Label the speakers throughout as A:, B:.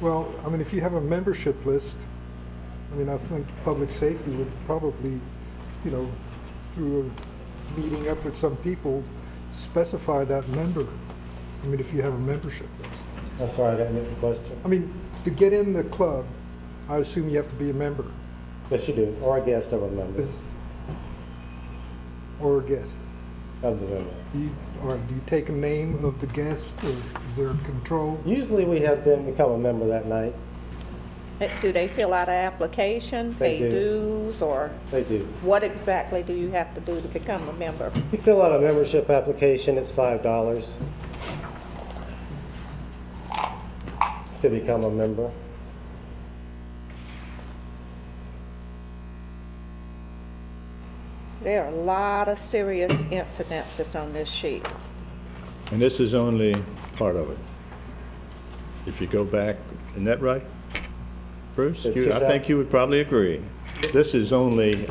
A: Well, I mean, if you have a membership list, I mean, I think public safety would probably, you know, through a meeting up with some people, specify that member. I mean, if you have a membership list.
B: I'm sorry, I didn't get the question.
A: I mean, to get in the club, I assume you have to be a member,
B: Yes, you do, or a guest of a member,
A: is, or a guest.
B: of the member.
A: Do you, or do you take a name of the guest, or is there a control?
B: Usually, we have them become a member that night.
C: Uh, Do they fill out an application,
B: They do.
C: pay dues, or
B: They do.
C: what exactly do you have to do to become a member?
B: You fill out a membership application, it's five dollars to become a member.
C: There are a lot of serious incidences on this sheet.
D: And this is only part of it. If you go back, isn't that right? Bruce,
B: The
D: You- I think
B: 2000
D: you would probably agree. This is only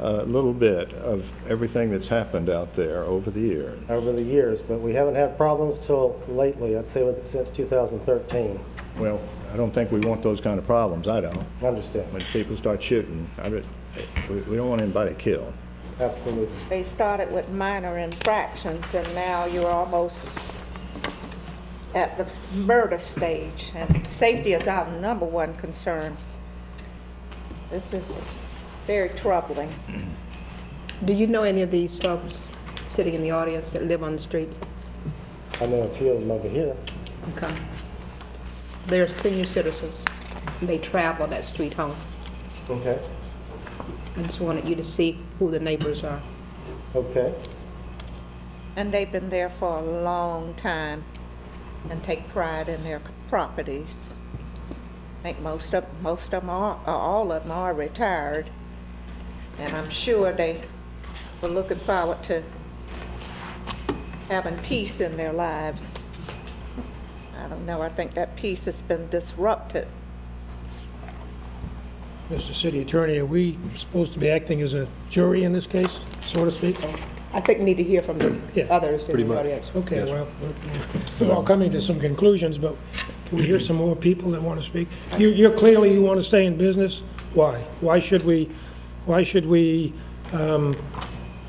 D: a little bit of everything that's happened out there over the years.
B: over the years, but we haven't had problems till lately, I'd say with- since 2013.
D: Well, I don't think we want those kind of problems, I don't.
B: I understand,
D: When people start shooting, I, bet- we we don't want anybody killed.
B: absolutely.
C: They started with minor infractions, and now you're almost at the murder stage, and safety is our number one concern. This is very troubling.
E: Do you know any of these folks sitting in the audience that live on the street?
B: I know a few of them over here.
E: Okay. They're senior citizens. They travel that street home.
B: Okay.
E: I just wanted you to see who the neighbors are.
B: Okay,
C: And they've been there for a long time and take pride in their properties. I think most of, most of them are, or all of them are retired. And I'm sure they were looking forward to having peace in their lives. I don't know, I think that peace has been disrupted.
F: Mr. City Attorney, are we supposed to be acting as a jury in this case, so to speak?
E: I think we need to hear from
F: Yeah.
E: the others in the audience.
F: Okay, well, we're- we're all coming to some conclusions, but can we hear some more people that want to speak? You- You're clearly, you want to stay in business. Why? Why should we, why should we um,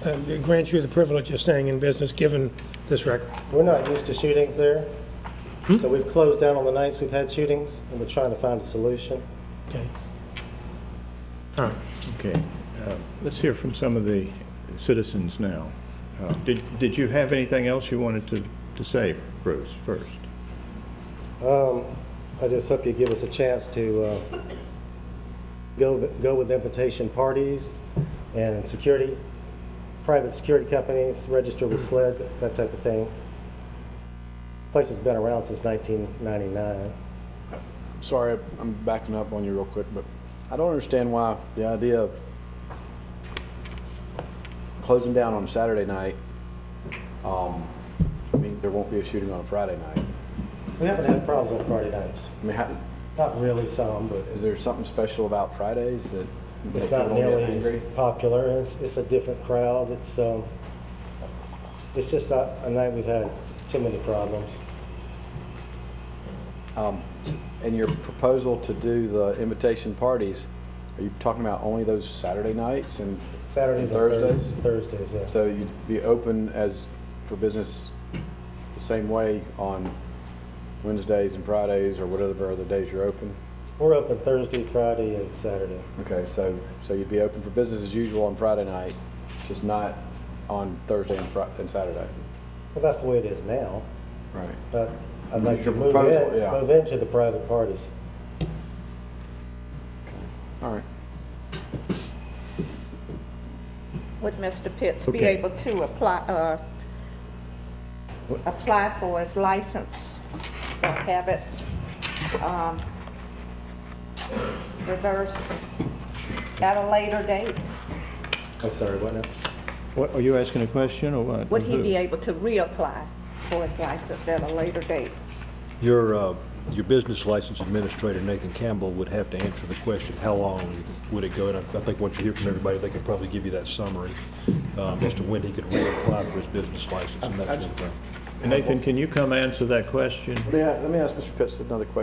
F: uh, grant you the privilege of staying in business, given this record?
B: we're not used to shootings there, so we've closed down on the nights we've had shootings, and we're trying to find a solution.
F: Okay. All right.
D: Okay, uh, let's hear from some of the citizens now. Uh, Did Did you have anything else you wanted to to say, Bruce, first?
B: Um, I just hope you give us a chance to uh, go go with invitation parties and security, private security companies, register with SLED, that type of thing. Place has been around since 1999.
G: sorry, I'm backing up on you real quick, but I don't understand why the idea of closing down on Saturday night um, means there won't be a shooting on a Friday night.
B: We haven't had problems on Friday nights.
G: I mean, how,
B: Not really some, but
G: is there something special about Fridays that that
B: it's
G: people
B: not
G: don't get
B: nearly
G: angry?
B: as popular. and It's, it's a different crowd. It's, um, it's just not a night we've had too many problems.
G: Um, and your proposal to do the invitation parties, are you talking about only those Saturday nights and
B: Saturdays and
G: Thursdays?
B: Thursdays. Thursdays, yeah.
G: So you'd be open as, for business the same way on Wednesdays and Fridays or whatever other days you're open?
B: We're open Thursday, Friday, and Saturday.
G: Okay, so, so you'd be open for business as usual on Friday night, just not on Thursday and Fri- and Saturday?
B: Well, that's the way it is now,
G: Right.
B: but I'd like to
G: Your
B: move
G: proposal,
B: in,
G: yeah.
B: move into the private parties.
G: All right.
C: Would Mr. Pitts be
D: Okay.
C: able to apply, uh, apply for his license or have it, um, reversed at a later date?
B: I'm sorry, what now?
D: What, are you asking a question, or what?
C: Would he
D: Who?
C: be able to reapply for his license at a later date?
H: Your, uh, your business license administrator, Nathan Campbell, would have to answer the question, how long would it go? And I I think once you hear from everybody, they could probably give you that summary um, as to when he could reapply for his business license and that sort of thing.
D: Nathan, can you come answer that question?
G: Let me, let me ask Mr. Pitts another question.